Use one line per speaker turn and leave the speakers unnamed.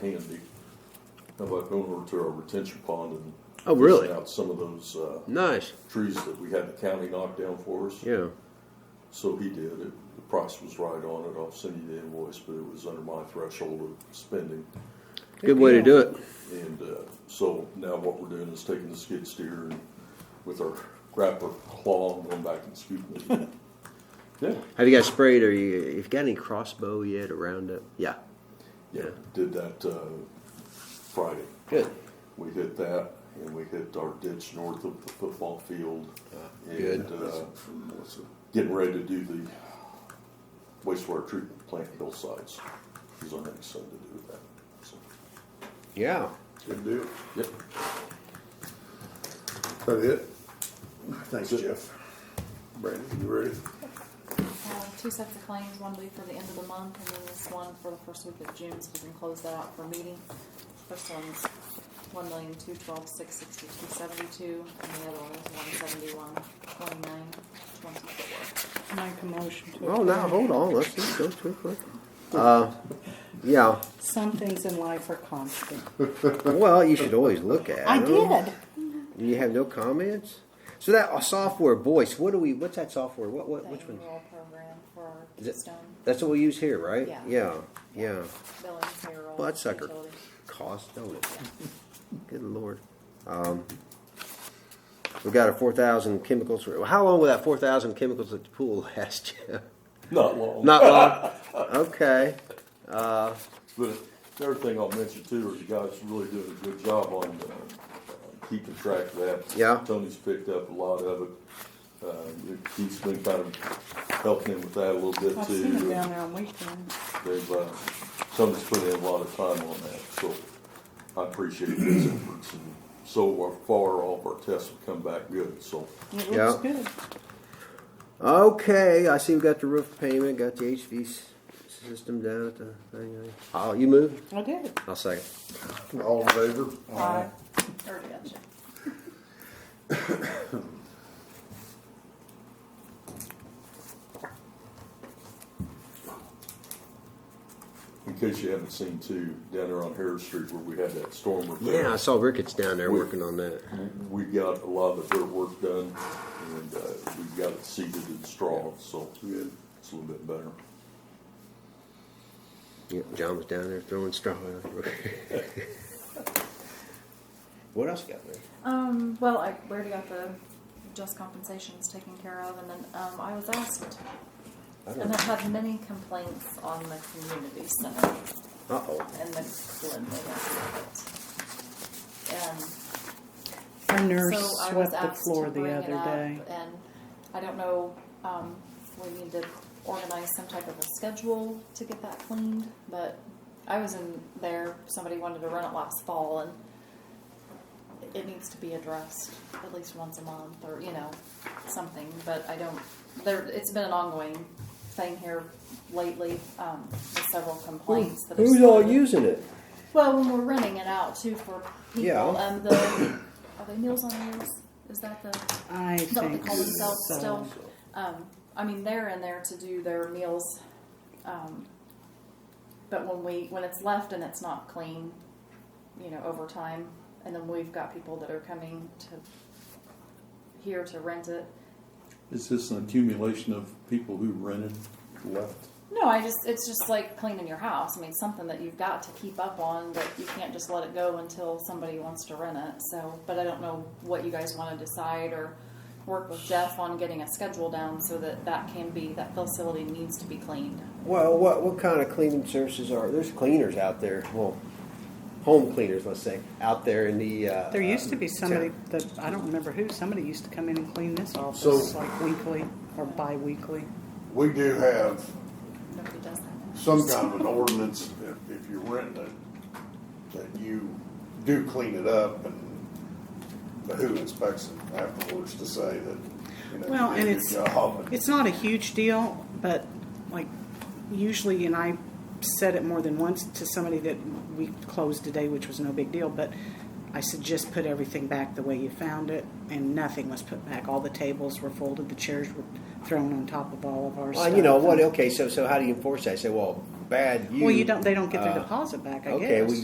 handy. How about going over to our retention pond and
Oh, really?
fishing out some of those uh,
Nice.
trees that we had the county knock down for us?
Yeah.
So he did. It, the price was right on it. I'll send you the invoice, but it was under my threshold of spending.
Good way to do it.
And uh, so now what we're doing is taking the skid steer and with our grapper claw and going back and scooping it. yeah,
Have you guys sprayed? Or you? You've got any crossbow yet or roundup? Yeah.
yeah. Did that uh, Friday.
Good.
We hit that, and we hit our ditch north of the football field. and,
good.
Uh, getting ready to do the wastewater treatment plant hillsides. Is our next thing to do with that. So,
Yeah.
Good deal.
yep.
That it? Thanks,
That's it.
Jeff. Brandon, you ready?
Uh, Two sets of claims, one due for the end of the month, and then this one for the first week of June, so we can close that out for meeting. First one's one million, two twelve, six sixty-two, seventy-two, and the other one is one seventy-one, twenty-nine, twenty-four.
Make a motion to.
Well, now
approve.
Oh, hold on. Let's just go too quick. Uh, yeah.
Some things in life are constant.
Well, you should always look at.
I
them.
did.
You have no comments. So that uh, software, voice. What do we? What's that software? What? What? Which
The
one?
annual program for
Is it-
Keystone,
That's what we use here, right?
Yeah.
Yeah. Yeah.
billing, payroll.
Bloodsucker.
utilities.
Cost, don't it? Good lord. Um, we've got a four thousand chemicals. How long will that four thousand chemicals at the pool last? Jeff?
Not long.
Not long. Okay.
But the other thing I'll mention too, is you guys really doing a good job on uh, keeping track of that.
Yeah.
Tony's picked up a lot of it. Uh, Keith's been kind of helping him with that a little bit
I've seen them
too.
down there on weekends.
They've, uh, Tony's put in a lot of time on that, so I appreciate his efforts. And So far, all of our tests have come back good, so
It
Yeah.
looks good.
Okay. I see we got the roof payment. Got the HV s- system down at the thing. Oh, you move.
I did.
I'll second.
All in favor?
Aye.
Already got you.
in case you haven't seen too, down there on Harris Street where we had that storm repair.
Yeah, I saw Ricketts down there working on that.
We got a lot of their work done and uh, we got it seeded in straw, so
Good.
it's a little bit better.
Yeah, John was down there throwing straw. out. what else you got there?
Um, well, I we already got the just compensations taken care of, and then, um, I was asked,
I don't-
and I've had many complaints on the community center.
Uh oh.
and the cleanliness of it. And
A nurse
so I was
swept the
asked
floor
to
the
bring it
other
up,
day.
and I don't know, um, we need to organize some type of a schedule to get that cleaned, but I was in there, somebody wanted to run it last fall, and it needs to be addressed at least once a month, or, you know, something, but I don't, there, it's been an ongoing thing here lately, um, with several complaints that are.
Who's all
still-
using it?
well, when we're renting it out too for people,
Yeah.
um, the are they Meals on Wheels? Is that the is
I
that what they
think
call themselves
so.
still? Um, I mean, they're in there to do their meals, um, but when we when it's left and it's not clean, you know, over time, and then we've got people that are coming to here to rent it.
Is this an accumulation of people who rented left?
No, I just it's just like cleaning your house. I mean, something that you've got to keep up on that you can't just let it go until somebody wants to rent it. So, but I don't know what you guys want to decide or work with Jeff on getting a schedule down so that that can be that facility needs to be cleaned.
Well, what what kind of cleaning services are there's cleaners out there? Well, home cleaners, let's say, out there in the. Uh,
There used to be
uh,
somebody
town.
that, I don't remember who, somebody used to come in and clean this office
So-
like weekly or bi-weekly.
We do have
Nobody does that.
some kind of an ordinance, if- if you're renting it, that you do clean it up and the who inspects it afterwards to say that, you know,
Well,
you
and
did
it's,
your job. and-
it's not a huge deal, but like usually, and I said it more than once to somebody that we closed today, which was no big deal, but I said just put everything back the way you found it, and nothing was put back. All the tables were folded, the chairs were thrown on top of all of our stuff.
Well, you know what? Okay, so so how do you enforce that? Say, well, bad. You,
Well, you don't, they don't get their
uh,
deposit back, I guess.
okay, well,